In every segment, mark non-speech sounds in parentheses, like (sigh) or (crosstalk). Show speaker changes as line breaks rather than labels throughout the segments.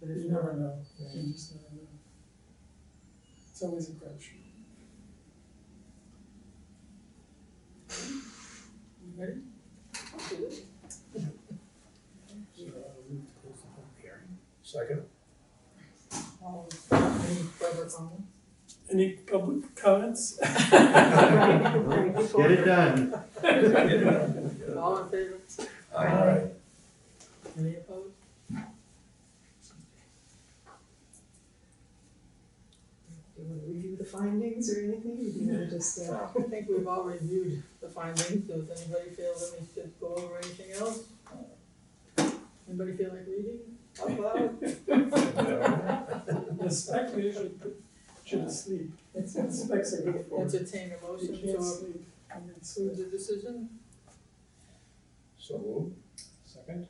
but you never know, you just never know. It's always a crapshoot. You Ready?
Second.
All in- Any further comments? Any public
(laughs)
comments?
Get it done.
(laughs) All in favor?
Aye.
Any opposed?
Do you want to review the findings or anything, or do you want to just, uh,
I think we've all reviewed the findings, so if anybody feels that we should go over anything else? Anybody feel like reading out loud?
The spec usually put you to sleep.
It's-
Specs are good for it.
Entertain a
You
motion
can't
to
sleep. And it's-
approve the decision?
So moved. Second.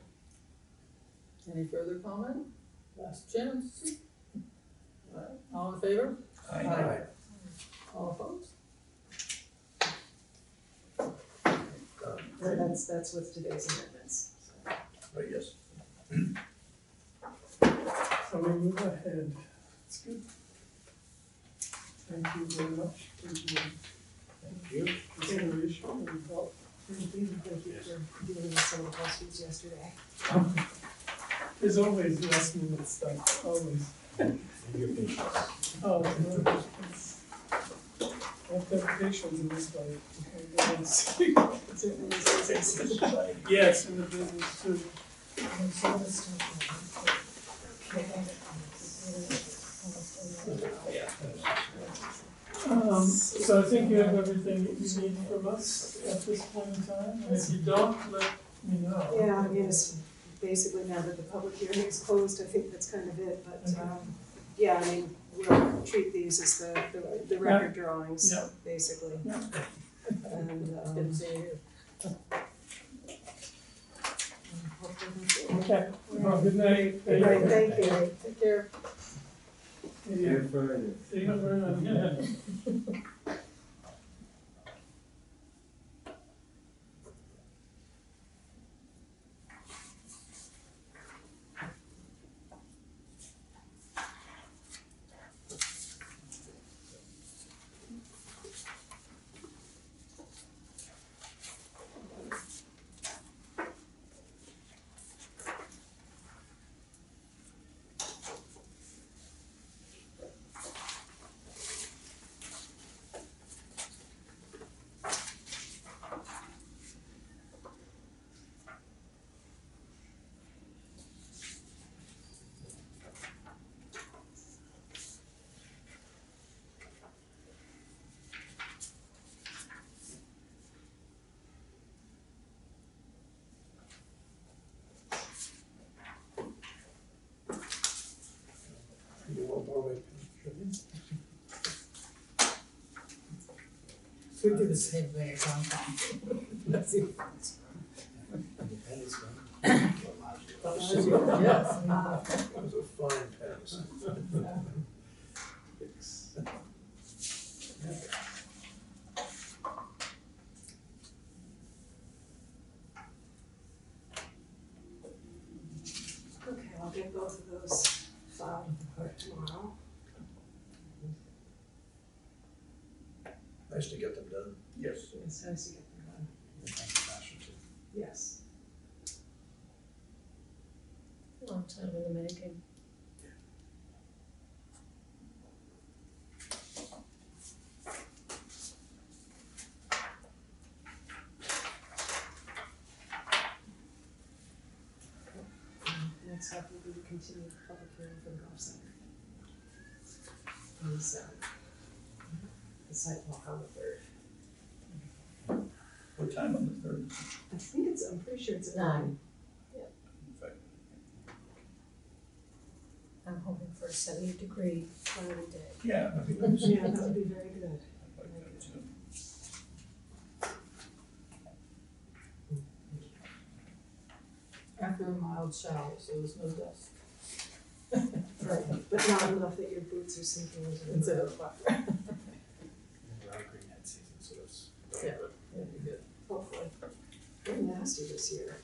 Any further comment? Last chance. All in favor? Aye. All opposed?
Done.
well, that's, that's with today's amendments.
But yes.
So we move ahead. It's good. Thank you very much for your
Thank you.
consideration and help.
Thank you, thank you for dealing with some of the issues yesterday.
There's always last minute stuff, always. Oh, no, it's- I have to have patience in this life. Okay, go on, see.
It's a- it's a- it's a-
Yes, in the business too.
I'm sure it's tough.
Um, so I think you have everything that you need from us at this point in time, and if you don't, let me know.
Yeah, I guess, basically now that the public hearing is closed, I think that's kind of it, but, um, yeah, I mean, we'll treat these as the, the- the record drawings,
Yeah.
basically.
Yeah.
And,
Didn't
um,
see you.
hopefully that's it.
Okay, well, good night.
All right, thank you.
Take care.
Yeah,
Friday.
See you very much. Yeah.
You want more of it?
We do the same thing, I'm That's it. Yes.
That was a fine pass.
Okay, I'll get both of those filed for tomorrow.
Nice to get them done. Yes.
It's nice to get them done. Yes.
Long time in the making.
Next up will be the continued public hearing for the golf center. On the seventh. The site walk on the third.
What time on the third?
I think it's, I'm pretty sure it's at nine.
Nine. I'm hoping for a seventy degree cloudy day.
Yeah. I think that was-
Yeah, that would be very good.
I'd like that too.
After a mild shower, so there's no dust.
Right, but not enough that your boots are sinking into the.
It's a
ground.
fire.
We're out green that season, so that's.
Yeah. That'd be good.
Hopefully. Very nasty this year.